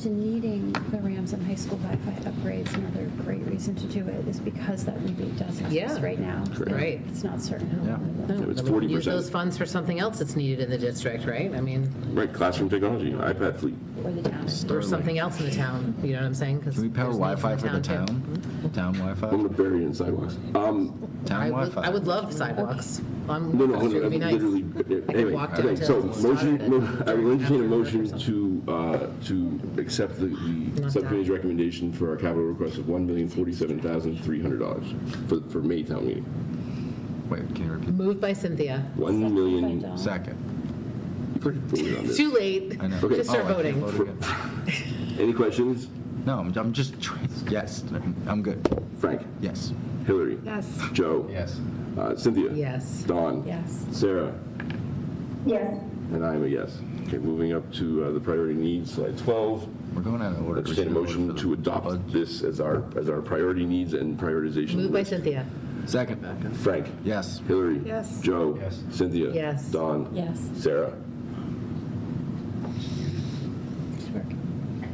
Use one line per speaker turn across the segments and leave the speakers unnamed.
To needing the Ramsden High School Wi-Fi upgrades, another great reason to do it is because that rebate does exist
Yeah.
right now.
Correct.
Right.
It's not certain.
Yeah.
No,
So it's
then we can
40%.
Use those funds for something else that's needed in the district, right? I mean,
Right, classroom technology, iPad fleet.
Or the town.
or something else in the town, you know what I'm saying?
Can we power Wi-Fi for the town? Town Wi-Fi?
I'm gonna bury it in sidewalks. Um,
Town
I would,
Wi-Fi?
I would love sidewalks. I'm,
no, no,
it would be nice.
literally, eh, anyway,
walk
okay,
down
so
to the
motion,
side
mo-
of it.
I will entertain a
Afterward or
motion
something.
to, uh, to accept the, the
Not
subcommittee's recommendation for our capital request of one million forty-seven thousand three hundred dollars for, for May town meeting.
Wait, can you repeat?
Moved by Cynthia.
One million.
Don't.
Second.
voted on this.
Too late.
I know.
Okay.
Just
Oh, I
start
can't
voting.
vote again.
Any questions?
No, I'm, I'm just, trying- yes, I'm good.
Frank,
Yes.
Hillary,
Yes.
Joe,
Yes.
uh, Cynthia.
Yes.
Dawn.
Yes.
Sarah.
yes,
And I am a yes. Okay, moving up to uh, the priority needs, slide 12.
We're going out of order.
Let's entertain a motion to adopt this as our, as our priority needs and prioritization.
Moved by
list.
Cynthia.
Second.
Frank.
Yes.
Hillary.
Yes.
Joe.
Yes.
Cynthia.
Yes.
Dawn.
Yes.
Sarah.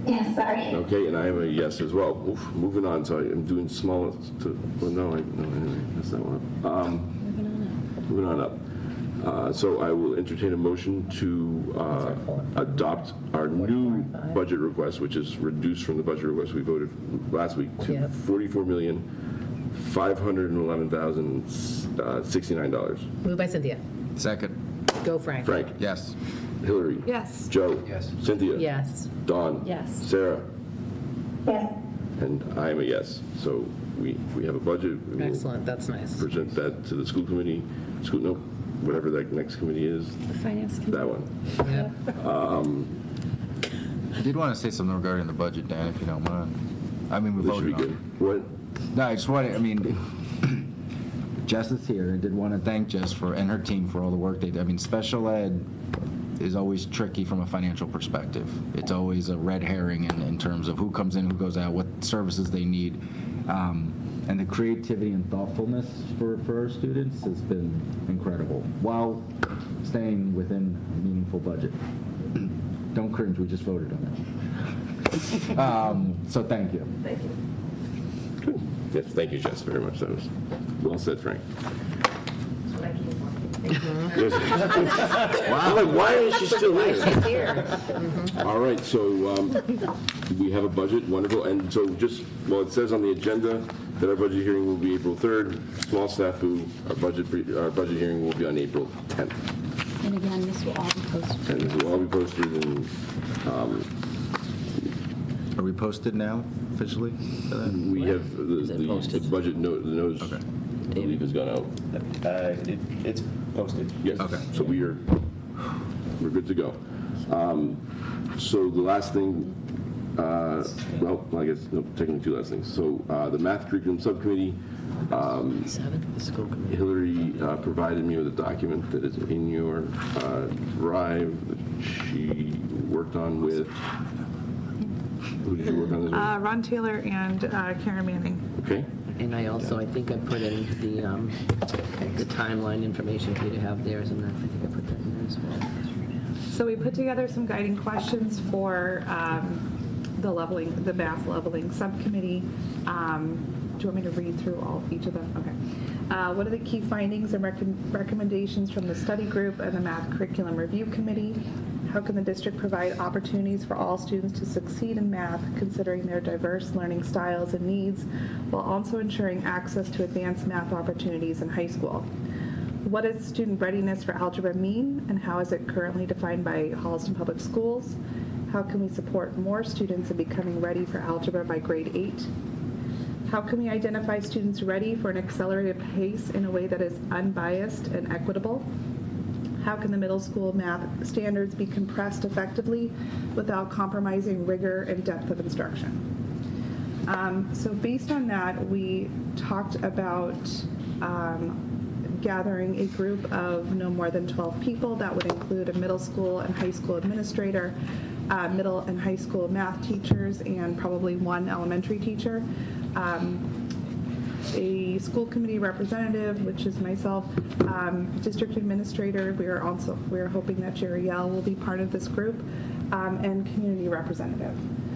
yes, sorry.
Okay, and I am a yes as well. Oof, moving on, so I'm doing small to, well, no, I, no, anyway, that's not one. Um,
Moving on
moving on up. Uh, so I will entertain a motion to, uh, adopt our new budget request, which is reduced from the budget request we voted last week to
Yep.
forty-four million, five hundred and eleven thousand, uh, sixty-nine dollars.
Moved by Cynthia.
Second.
Go Frank.
Frank,
Yes.
Hillary.
Yes.
Joe.
Yes.
Cynthia.
Yes.
Dawn.
Yes.
Sarah.
Yes,
And I am a yes. So we, we have a budget. We will
Excellent. That's nice.
Present that to the school committee, school, no, whatever that next committee is,
The finance
that
committee.
one.
Yeah.
I did want to say something regarding the budget, Dan, if you don't mind. I mean, we
This should be
voted on it.
good. What,
No, I just wanted, I mean, Jess is here. I did want to thank Jess for, and her team for all the work they did. I mean, special ed is always tricky from a financial perspective. It's always a red herring in, in terms of who comes in, who goes out, what services they need. Um, and the creativity and thoughtfulness for, for our students has been incredible while staying within a meaningful budget. Don't cringe, we just voted on it. um, so thank you.
good. Yes, thank you, Jess, very much. That was well said, Frank. Yes. I'm like, Mm-hmm. why is she still here? Mm-hmm.
Here.
All right, so um, we have a budget, wonderful, and so just, well, it says on the agenda that our budget hearing will be April 3rd, small snafu, our budget, pre- our budget hearing will be on April 10th.
And again, this will all be posted.
And this will all be posted in, um,
Are we posted now officially? for that?
we have, the- the the budget note, the notice,
Okay.
I believe has gone out.
Uh, it- It's posted.
Yes,
Okay.
so we are, we're good to go. Um, So the last thing, uh, well, I guess, no, technically two last things. So uh, the math curriculum subcommittee, um, Hillary uh, provided me with a document that is in your uh, drive that she worked on with, who did you work on this with?
Uh, Ron Taylor and uh, Karen Manning.
Okay,
And I also, I think I put in the, um, the timeline information for you to have theirs, and I think I put that in there as well.
So we put together some guiding questions for um, the leveling, the math leveling subcommittee. Um, Do you want me to read through all, each of them? Okay. Uh, What are the key findings and recom- recommendations from the study group and the math curriculum review committee? How can the district provide opportunities for all students to succeed in math considering their diverse learning styles and needs while also ensuring access to advanced math opportunities in high school? What does student readiness for algebra mean, and how is it currently defined by Holliston Public Schools? How can we support more students in becoming ready for algebra by grade eight? How can we identify students ready for an accelerated pace in a way that is unbiased and equitable? How can the middle school math standards be compressed effectively without compromising rigor and depth of instruction? Um, so based on that, we talked about um, gathering a group of no more than 12 people. That would include a middle school and high school administrator, uh, middle and high school math teachers, and probably one elementary teacher. Um, a school committee representative, which is myself, um, district administrator. We are also we are hoping that Jerry Yell will be part of this group, um, and community representative.